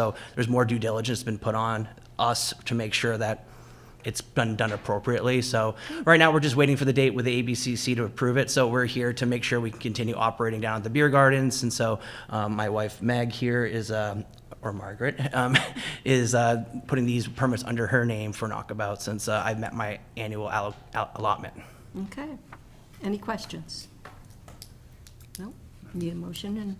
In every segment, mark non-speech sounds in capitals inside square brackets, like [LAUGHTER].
So there's more due diligence been put on us to make sure that it's been done appropriately. So right now, we're just waiting for the date with the ABCC to approve it. So we're here to make sure we can continue operating down at the beer gardens. And so um, my wife Meg here is, um, or Margaret, um, [LAUGHS] is uh, putting these permits under her name for Knockabout since uh, I've met my annual allo- al- allotment. Okay. Any questions? No? Need a motion and,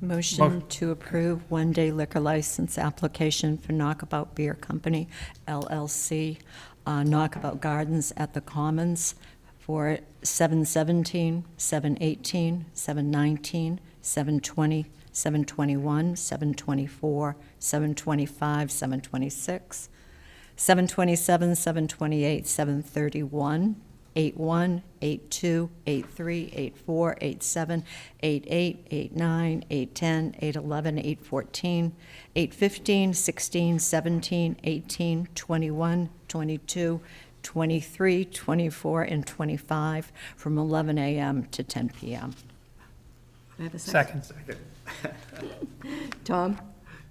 Motion to approve one-day liquor license application for Knockabout Beer Company LLC, uh, Knockabout Gardens at the Commons for 717, 718, 719, 720, 721, 724, 725, 726, 727, 728, 731, 81, 82, 83, 84, 87, 88, 89, 810, 811, 814, 815, 16, 17, 18, 21, 22, 23, 24, and 25 from 11 a.m. to 10 p.m. I have a second? Second. Tom,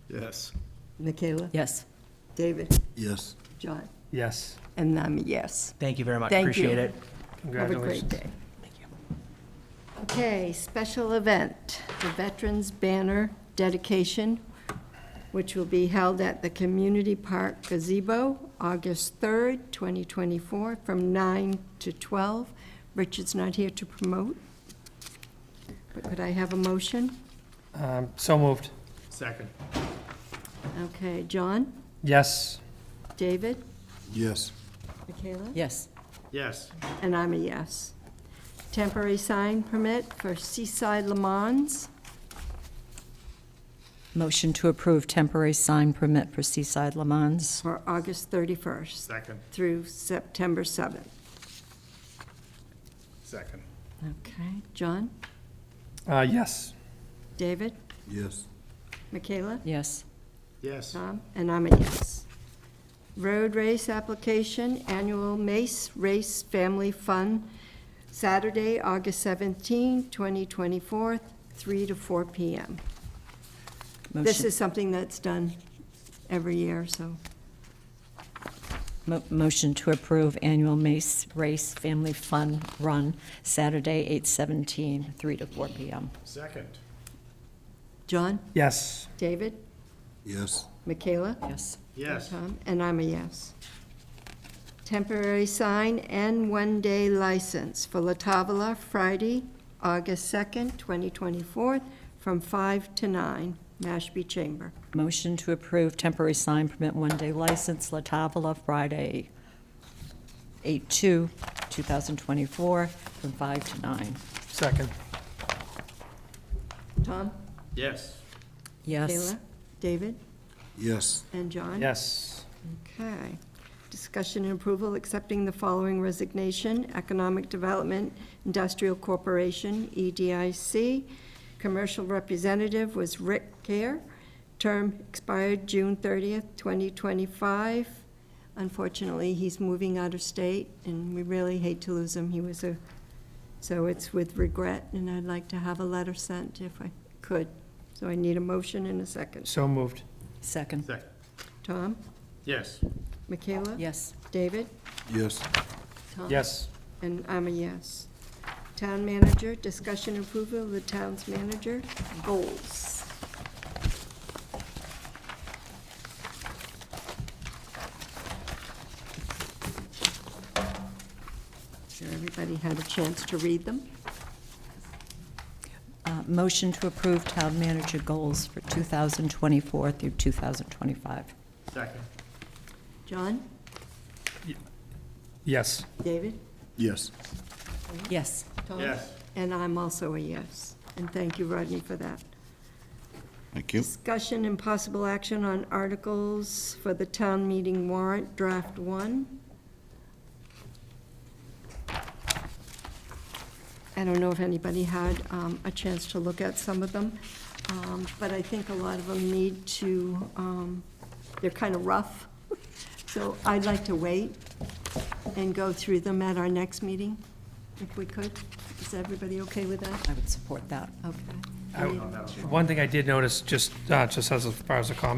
Yes. Michaela, Yes. David, Yes. John, Yes, and I'm a yes. Thank you very much. Thank you. Appreciate it. Have a congratulations. great day. Okay, special event, the Veterans Banner Dedication, which will be held at the Community Park gazebo, August 3rd, 2024, from 9 to 12. Richard's not here to promote, but could I have a motion? Um, So moved. Second. Okay, John, Yes, David, Yes. Michaela? Yes. Yes. And I'm a yes. Temporary sign permit for Seaside Le Mans. Motion to approve temporary sign permit for Seaside Le Mans. for August 31st Second. through September 7th. Second. Okay. John, Uh, yes, David, Yes. Michaela, Yes. Yes. Tom, and I'm a yes. Road race application, annual Mace Race Family Fun, Saturday, August 17, 2024, 3 to 4 p.m. This Motion- is something that's done every year, so. Mo- Motion to approve annual Mace Race Family Fun Run, Saturday, 8/17, 3 to 4 p.m. Second. John, yes, David, Yes. Michaela? Yes. Yes. Tom, And I'm a yes. Temporary sign and one-day license for La Tavola, Friday, August 2nd, 2024, from 5 to 9, Mashpee Chamber. Motion to approve temporary sign permit one-day license, La Tavola, Friday, 8/2/2024, from 5 to 9. second. Tom? Yes. Yes. Kayla? David? Yes. And John? Yes, Okay. Discussion and approval accepting the following resignation, Economic Development Industrial Corporation, E EDIC. Commercial representative was Rick Care. Term expired June 30th, 2025. Unfortunately, he's moving out of state, and we really hate to lose him. He was a, so it's with regret, and I'd like to have a letter sent if I could. So I need a motion and a second. so moved. Second. Second. Tom? Yes. Michaela? Yes. David? Yes. Tom? Yes, And I'm a yes. Town manager, discussion and approval of the town's manager goals. Sure everybody had a chance to read them. Uh, Motion to approve town manager goals for 2024 through 2025. Second. John, yes, David, Yes. Yes. Tom? Yes. And I'm also a yes. And thank you, Rodney, for that. Thank you. Discussion and possible action on articles for the town meeting warrant, draft one. I don't know if anybody had um, a chance to look at some of them, um, but I think a lot of them need to, um, they're kind of rough. [LAUGHS] So I'd like to wait and go through them at our next meeting, if we could. Is everybody okay with that? I would support that. Okay. I- One thing I did notice, just, uh, just as far as a comment,